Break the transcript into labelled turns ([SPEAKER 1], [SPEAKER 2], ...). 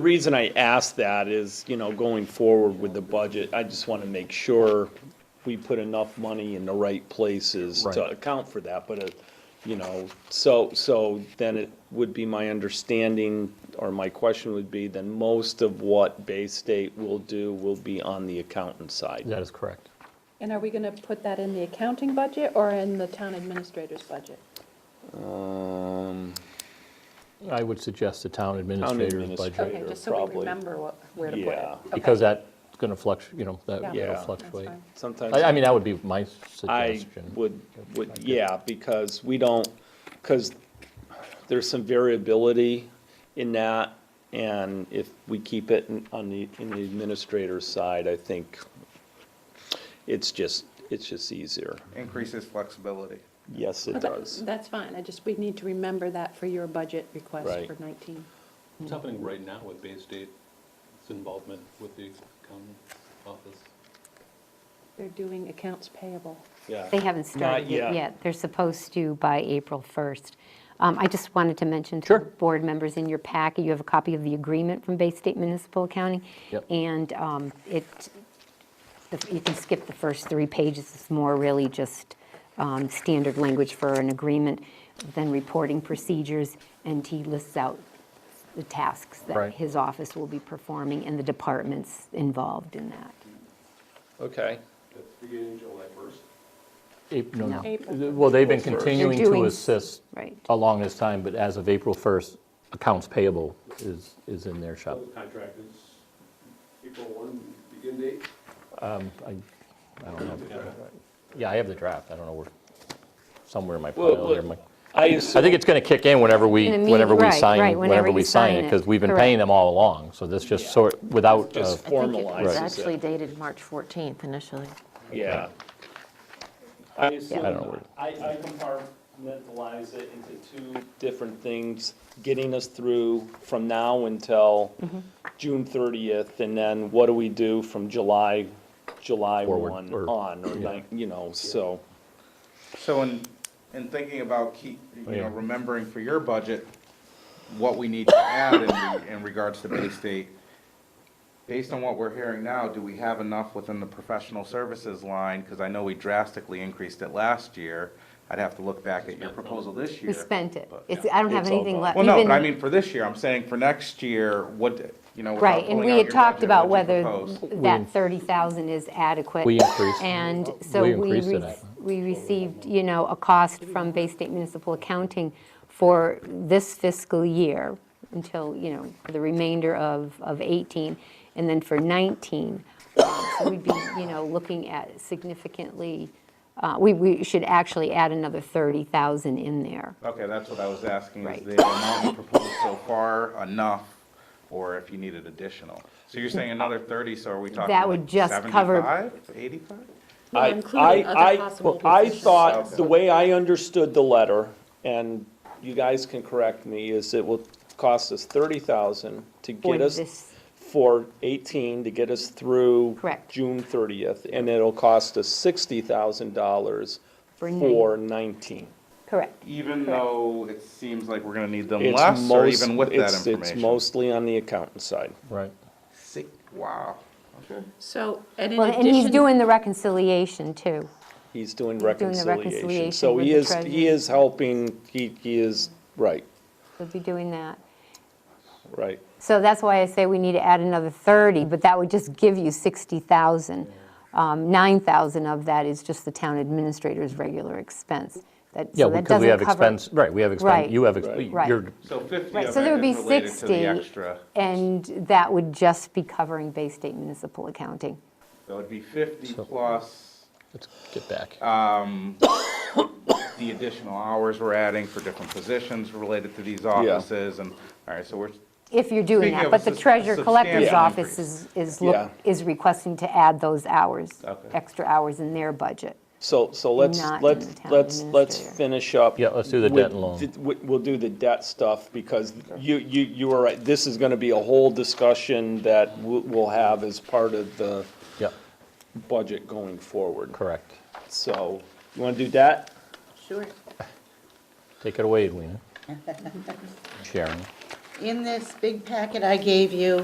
[SPEAKER 1] The reason I ask that is, you know, going forward with the budget, I just want to make sure we put enough money in the right places to
[SPEAKER 2] Right.
[SPEAKER 1] account for that, but, it- you know, so, so then it would be my understanding, or my question would be, then most of what Bay State will do will be on the accountant side.
[SPEAKER 2] That is correct.
[SPEAKER 3] And are we going to put that in the accounting budget or in the town administrator's budget?
[SPEAKER 1] Um,
[SPEAKER 2] I would suggest the town administrator's budget,
[SPEAKER 1] administrator.
[SPEAKER 3] Okay,
[SPEAKER 1] Later,
[SPEAKER 3] just so we
[SPEAKER 1] probably.
[SPEAKER 3] remember what, where to put it.
[SPEAKER 1] Yeah.
[SPEAKER 3] Okay.
[SPEAKER 2] because that's going to fluctuate, you know, that,
[SPEAKER 3] Yeah.
[SPEAKER 2] it'll
[SPEAKER 1] Yeah.
[SPEAKER 2] fluctuate.
[SPEAKER 3] That's fine.
[SPEAKER 1] Sometimes.
[SPEAKER 2] I, I mean, that would be my
[SPEAKER 1] I
[SPEAKER 2] suggestion.
[SPEAKER 1] would, would, yeah, because we don't, because there's some variability in that, and if we keep it in- on the, in the administrator's side, I think it's just, it's just easier.
[SPEAKER 4] increases flexibility.
[SPEAKER 1] Yes, it
[SPEAKER 3] Well, that-
[SPEAKER 1] does.
[SPEAKER 3] That's fine, I just, we need to remember that for your budget request
[SPEAKER 1] Right.
[SPEAKER 3] for 19.
[SPEAKER 5] What's happening right now with Bay State's involvement with the county office?
[SPEAKER 3] They're doing accounts payable.
[SPEAKER 1] Yeah.
[SPEAKER 6] They haven't started
[SPEAKER 1] yet.
[SPEAKER 6] it yet. They're supposed to by April 1st. Um, I just wanted to mention to
[SPEAKER 2] Sure.
[SPEAKER 6] the board members in your packet, you have a copy of the agreement from Bay State Municipal Accounting.
[SPEAKER 2] Yep.
[SPEAKER 6] And um, it, the- you can skip the first three pages. It's more really just um, standard language for an agreement, then reporting procedures, and he lists out the tasks that
[SPEAKER 2] Right.
[SPEAKER 6] his office will be performing and the departments involved in that.
[SPEAKER 1] Okay,
[SPEAKER 5] That's beginning July first.
[SPEAKER 2] Ap- No,
[SPEAKER 6] No.
[SPEAKER 2] no.
[SPEAKER 3] April
[SPEAKER 2] Well, they've been
[SPEAKER 1] April first.
[SPEAKER 2] continuing
[SPEAKER 6] They're
[SPEAKER 2] to
[SPEAKER 6] doing-
[SPEAKER 2] assist
[SPEAKER 6] right.
[SPEAKER 2] along this time, but as of April 1st, accounts payable is, is in their shop.
[SPEAKER 5] Contract is April one, begin date?
[SPEAKER 2] I, I don't know. Yeah, I have the draft. I don't know where, somewhere in my
[SPEAKER 1] Well,
[SPEAKER 2] pile.
[SPEAKER 1] look,
[SPEAKER 2] there, my-
[SPEAKER 1] I
[SPEAKER 2] I
[SPEAKER 1] assume,
[SPEAKER 2] think it's going to kick in whenever we,
[SPEAKER 6] In a meeting,
[SPEAKER 2] whenever we
[SPEAKER 6] right, right,
[SPEAKER 2] sign, whenever
[SPEAKER 6] whenever
[SPEAKER 2] we
[SPEAKER 6] you
[SPEAKER 2] sign it,
[SPEAKER 6] sign it,
[SPEAKER 2] because we've been paying
[SPEAKER 6] correct.
[SPEAKER 2] them all along. So this
[SPEAKER 1] Yeah.
[SPEAKER 2] just sort, without, uh,
[SPEAKER 1] just
[SPEAKER 7] I think it was
[SPEAKER 1] formalizes
[SPEAKER 7] actually
[SPEAKER 1] it,
[SPEAKER 7] dated March 14th initially.
[SPEAKER 1] yeah. I
[SPEAKER 6] I
[SPEAKER 2] don't know where-
[SPEAKER 1] assume, I, I compartmentalize it into two different things, getting us through from now until June thirtieth, and then what do we do from July, July
[SPEAKER 2] Forward,
[SPEAKER 1] one
[SPEAKER 2] or-
[SPEAKER 1] on, or like, you know, so.
[SPEAKER 4] So in, in thinking about keep, you know,
[SPEAKER 2] Yeah.
[SPEAKER 4] remembering for your budget, what we need to add in, re- in regards to Bay State, based on what we're hearing now, do we have enough within the professional services line? Because I know we drastically increased it last year. I'd have to look back at your proposal this year.
[SPEAKER 6] We spent it.
[SPEAKER 4] but-
[SPEAKER 6] It's, I don't have
[SPEAKER 1] It's all
[SPEAKER 6] anything
[SPEAKER 1] gone.
[SPEAKER 6] left.
[SPEAKER 4] Well, no,
[SPEAKER 6] We've
[SPEAKER 4] but I
[SPEAKER 6] been-
[SPEAKER 4] mean, for this year, I'm saying for next year, what, you know, without
[SPEAKER 6] Right, and
[SPEAKER 4] pulling
[SPEAKER 6] we
[SPEAKER 4] out
[SPEAKER 6] had
[SPEAKER 4] your
[SPEAKER 6] talked
[SPEAKER 4] budget,
[SPEAKER 6] about
[SPEAKER 4] what'd you
[SPEAKER 6] whether
[SPEAKER 4] propose?
[SPEAKER 6] that 30,000 is adequate.
[SPEAKER 2] We increased-
[SPEAKER 6] And
[SPEAKER 2] uh,
[SPEAKER 6] so
[SPEAKER 2] we
[SPEAKER 6] we,
[SPEAKER 2] increased it,
[SPEAKER 6] re-
[SPEAKER 2] I-
[SPEAKER 6] we received, you know, a cost from Bay State Municipal Accounting for this fiscal year until, you know, for the remainder of, of 18, and then for 19. um, So we'd be, you know, looking at significantly, uh, we, we should actually add another 30,000 in there.
[SPEAKER 4] Okay, that's what I was asking, is
[SPEAKER 6] Right.
[SPEAKER 4] the amount you proposed so far enough, or if you needed additional? So you're saying another thirty, so are we talking
[SPEAKER 6] That would
[SPEAKER 4] like
[SPEAKER 6] just cover-
[SPEAKER 4] 75, 85?
[SPEAKER 3] Well,
[SPEAKER 1] I-
[SPEAKER 3] including
[SPEAKER 1] I-
[SPEAKER 3] other
[SPEAKER 1] I-
[SPEAKER 3] possible
[SPEAKER 1] I
[SPEAKER 3] positions.
[SPEAKER 1] thought, the way I understood the letter, and you guys can correct me, is it will cost us thirty thousand to
[SPEAKER 6] For
[SPEAKER 1] get us,
[SPEAKER 6] this-
[SPEAKER 1] for eighteen, to get us through.
[SPEAKER 6] Correct.
[SPEAKER 1] June thirtieth, and it'll cost us sixty thousand dollars
[SPEAKER 6] For nine-
[SPEAKER 1] for nineteen.
[SPEAKER 6] Correct.
[SPEAKER 4] Even though it seems like we're gonna need them
[SPEAKER 1] It's
[SPEAKER 4] less, or
[SPEAKER 1] most-
[SPEAKER 4] even with that
[SPEAKER 1] it's-
[SPEAKER 4] information?
[SPEAKER 1] It's mostly on the accountant side.
[SPEAKER 2] right.
[SPEAKER 4] Sick, wow.
[SPEAKER 3] So, and in
[SPEAKER 6] Well, and he's
[SPEAKER 3] addition,
[SPEAKER 6] doing the reconciliation, too.
[SPEAKER 1] He's doing
[SPEAKER 6] doing the
[SPEAKER 1] reconciliation,
[SPEAKER 6] reconciliation
[SPEAKER 1] so
[SPEAKER 6] with
[SPEAKER 1] he
[SPEAKER 6] the
[SPEAKER 1] is, he
[SPEAKER 6] treasurer.
[SPEAKER 1] is helping, he, he is, right,
[SPEAKER 6] He'll be doing that.
[SPEAKER 1] right.
[SPEAKER 6] So that's why I say we need to add another 30, but that would just give you 60,000. Um, 9,000 of that is just the town administrator's regular expense. That-
[SPEAKER 2] Yeah,
[SPEAKER 6] so that
[SPEAKER 2] because we have
[SPEAKER 6] doesn't cover-
[SPEAKER 2] expense, right, we have
[SPEAKER 6] Right.
[SPEAKER 2] expense, you have, ex-
[SPEAKER 1] Right.
[SPEAKER 6] Right.
[SPEAKER 2] you're,
[SPEAKER 4] So fifty
[SPEAKER 6] Right,
[SPEAKER 4] of
[SPEAKER 6] so there
[SPEAKER 4] it
[SPEAKER 6] would be
[SPEAKER 4] is related to
[SPEAKER 6] 60.
[SPEAKER 4] the extra,
[SPEAKER 6] And that would just be covering Bay State Municipal Accounting.
[SPEAKER 4] so it'd be fifty plus
[SPEAKER 2] let's get back.
[SPEAKER 4] the additional hours we're adding for different positions related to these offices, and, all right, so we're,
[SPEAKER 6] If you're doing
[SPEAKER 4] Speaking
[SPEAKER 6] that,
[SPEAKER 4] of
[SPEAKER 6] but the
[SPEAKER 4] a sus-
[SPEAKER 6] treasurer collector's
[SPEAKER 4] substantial
[SPEAKER 6] office
[SPEAKER 4] increase.
[SPEAKER 6] is, is
[SPEAKER 1] Yeah.
[SPEAKER 6] look, is requesting to add those hours,
[SPEAKER 4] Okay.
[SPEAKER 6] extra hours in their budget.
[SPEAKER 1] So, so let's,
[SPEAKER 6] Not in
[SPEAKER 1] let's,
[SPEAKER 6] the town
[SPEAKER 1] let's, let's
[SPEAKER 6] administrator.
[SPEAKER 1] finish up.
[SPEAKER 2] Yeah, let's do the
[SPEAKER 1] with-
[SPEAKER 2] debt and loan.
[SPEAKER 1] th- we- We'll do the debt stuff, because you, you, you are right, this is gonna be a whole discussion that we'll, we'll have as part of the
[SPEAKER 2] Yep,
[SPEAKER 1] budget going forward.
[SPEAKER 2] correct.
[SPEAKER 1] So, you wanna do that?
[SPEAKER 3] sure,
[SPEAKER 2] Take it away, Edwina. Sharon.
[SPEAKER 8] in this big packet I gave you,